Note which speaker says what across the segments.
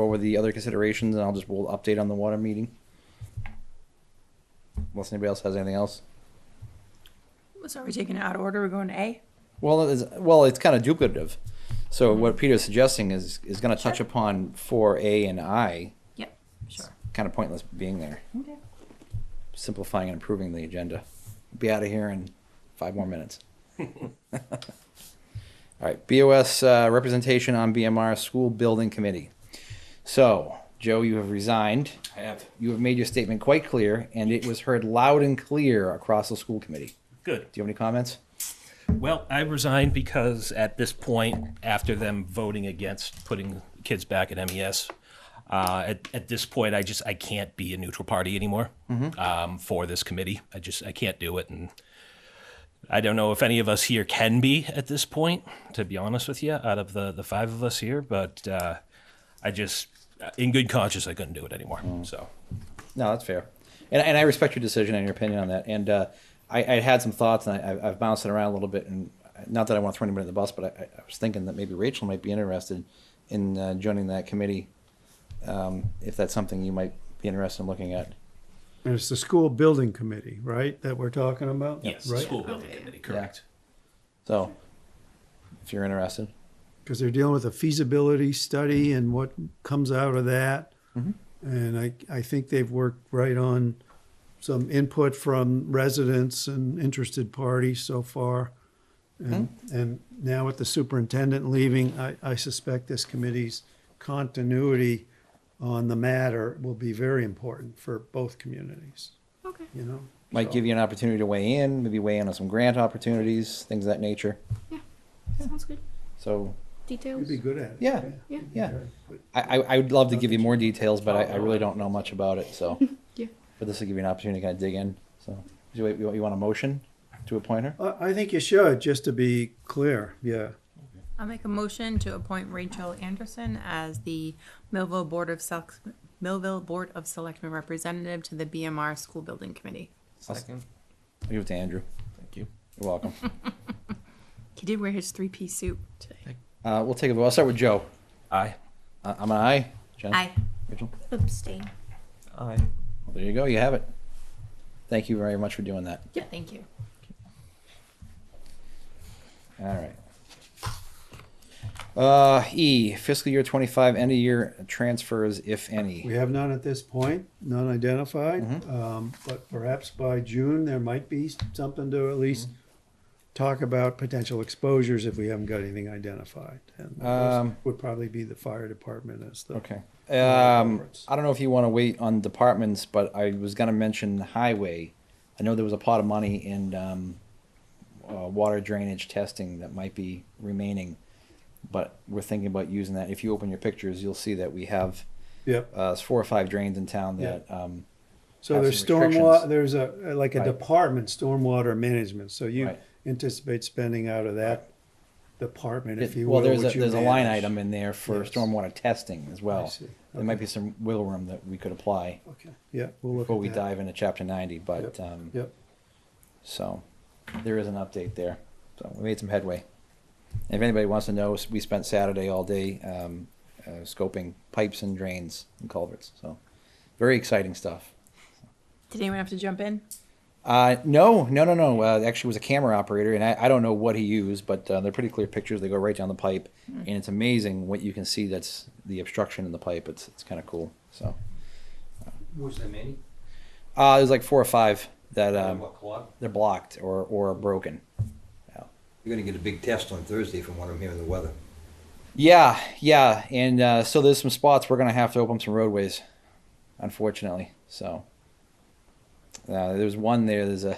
Speaker 1: over the other considerations and I'll just, we'll update on the water meeting. Unless anybody else has anything else.
Speaker 2: So are we taking it out of order? We're going to A?
Speaker 1: Well, it's, well, it's kind of duplicative. So what Peter's suggesting is, is gonna touch
Speaker 2: Sure.
Speaker 1: upon four A and I.
Speaker 2: Yep, sure.
Speaker 1: Kind of pointless being there,
Speaker 2: Okay.
Speaker 1: simplifying and improving the agenda. Be out of here in five more minutes. All right, BOS uh, representation on BMR School Building Committee. So, Joe, you have resigned.
Speaker 3: I have.
Speaker 1: You have made your statement quite clear, and it was heard loud and clear across the school committee.
Speaker 3: Good.
Speaker 1: Do you have any comments?
Speaker 3: Well, I resigned because at this point, after them voting against putting kids back at MES, uh, at, at this point, I just I can't be a neutral party anymore um, for this committee. I just I can't do it, and I don't know if any of us here can be at this point. To be honest with you, out of the the five of us here, but uh, I just, uh, in good conscience, I couldn't do it anymore. So
Speaker 1: No, that's fair. And, and I respect your decision and your opinion on that. And uh, I, I had some thoughts, and I, I've- I've bounced it around a little bit. And not that I want to throw anybody in the bus, but I, I was thinking that maybe Rachel might be interested in uh, joining that committee, um, if that's something you might be interested in looking at.
Speaker 4: And it's the school building committee, right, that we're talking about?
Speaker 3: yes,
Speaker 4: Right?
Speaker 3: school building committee, correct.
Speaker 1: So, if you're interested,
Speaker 4: Because they're dealing with a feasibility study and what comes out of that. And I, I think they've worked right on some input from residents and interested parties so far. And, and now with the superintendent leaving, I, I suspect this committee's continuity on the matter will be very important for both communities,
Speaker 2: Okay.
Speaker 4: you know?
Speaker 1: might give you an opportunity to weigh in, maybe weigh in on some grant opportunities, things of that nature.
Speaker 5: Sounds good.
Speaker 1: So,
Speaker 4: You'd
Speaker 5: Details.
Speaker 4: be good at it.
Speaker 1: Yeah.
Speaker 5: Yeah.
Speaker 1: yeah, I, I, I would love to give you more details, but I, I really don't know much about it. So.
Speaker 5: Yeah.
Speaker 1: But this will give you an opportunity to kind of dig in. So, do you, you, you want a motion to appoint her?
Speaker 4: I I think you should, just to be clear, yeah.
Speaker 2: I'll make a motion to appoint Rachel Anderson as the Millville Board of Select, Millville Board of Selectmen Representative to the BMR School Building Committee.
Speaker 6: Second.
Speaker 1: I'll give it to Andrew.
Speaker 6: Thank you.
Speaker 1: You're welcome.
Speaker 2: He did wear his three-piece suit today.
Speaker 1: uh, we'll take a vote. I'll start with Joe.
Speaker 3: Aye.
Speaker 1: Uh, I'm an aye. Jen?
Speaker 2: Aye.
Speaker 1: Rachel?
Speaker 5: Abstain.
Speaker 6: Aye.
Speaker 1: Well, there you go. You have it. Thank you very much for doing that.
Speaker 2: Yeah, thank you.
Speaker 1: All right. Uh, E, fiscal year 25, end of year transfers, if
Speaker 4: We
Speaker 1: any.
Speaker 4: have none at this point, none identified,
Speaker 1: Mm-hmm.
Speaker 4: um, but perhaps by June, there might be something to at least
Speaker 1: Mm-hmm.
Speaker 4: talk about potential exposures if we haven't got anything identified. And those
Speaker 1: Um,
Speaker 4: Would probably be the fire department as the.
Speaker 1: Okay. Um, I don't know if you want to wait on departments, but I was going to mention highway. I know there was a pot of money in um, uh, water drainage testing that might be remaining, but we're thinking about using that. If you open your pictures, you'll see that we have
Speaker 4: Yep,
Speaker 1: uh, four or five drains in town that. Um,
Speaker 4: so
Speaker 1: have
Speaker 4: there's
Speaker 1: some restrictions.
Speaker 4: stormwater, there's a, like a
Speaker 1: Right.
Speaker 4: department, stormwater management, so you
Speaker 1: Right.
Speaker 4: anticipate spending out of that department, if
Speaker 1: it-
Speaker 4: you will.
Speaker 1: well, there's a,
Speaker 4: what you
Speaker 1: there's a line
Speaker 4: manage.
Speaker 1: item in there for
Speaker 4: Yes.
Speaker 1: stormwater testing as well.
Speaker 4: see.
Speaker 1: There might be some wiggle room that we could apply
Speaker 4: Okay, yeah, we'll look at that.
Speaker 1: before we dive into chapter 90, but um,
Speaker 4: Yep.
Speaker 1: So there is an update there. So we made some headway. And if anybody wants to know, we spent Saturday all day um, uh, scoping pipes and drains and culverts. So very exciting stuff.
Speaker 2: Did anyone have to jump in?
Speaker 1: Uh, no, no, no, no. Uh, actually, it was a camera operator, and I, I don't know what he used, but uh, they're pretty clear pictures. They go right down the pipe, and it's amazing what you can see. That's the obstruction in the pipe. It's it's kind of cool. So
Speaker 6: Was there many?
Speaker 1: uh, there's like four or five that um,
Speaker 6: What clock?
Speaker 1: they're blocked or or broken.
Speaker 7: You're gonna get a big test on Thursday from what I'm hearing the weather.
Speaker 1: Yeah, yeah, and uh, so there's some spots we're gonna have to open some roadways, unfortunately. So uh, there's one there. There's a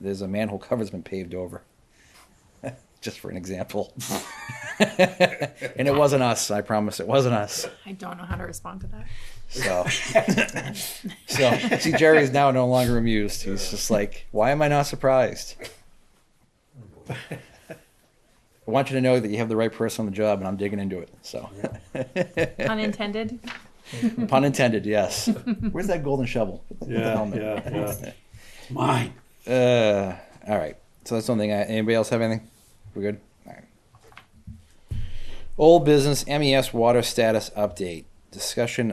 Speaker 1: there's a manhole cover's been paved over, just for an example. and it wasn't us. I promise, it wasn't us.
Speaker 2: I don't know how to respond to that.
Speaker 1: So, so see, Jerry's now no longer amused. He's just like, why am I not surprised? I want you to know that you have the right person on the job, and I'm digging into it. So.
Speaker 2: Unintended?
Speaker 1: Pun intended, yes. Where's that golden shovel? Get the
Speaker 4: Yeah,
Speaker 1: helmet.
Speaker 4: yeah, yeah. Mine.
Speaker 1: Uh, all right. So that's one thing. I, anybody else have anything? We're good? All right. Old business MES water E status update. discussion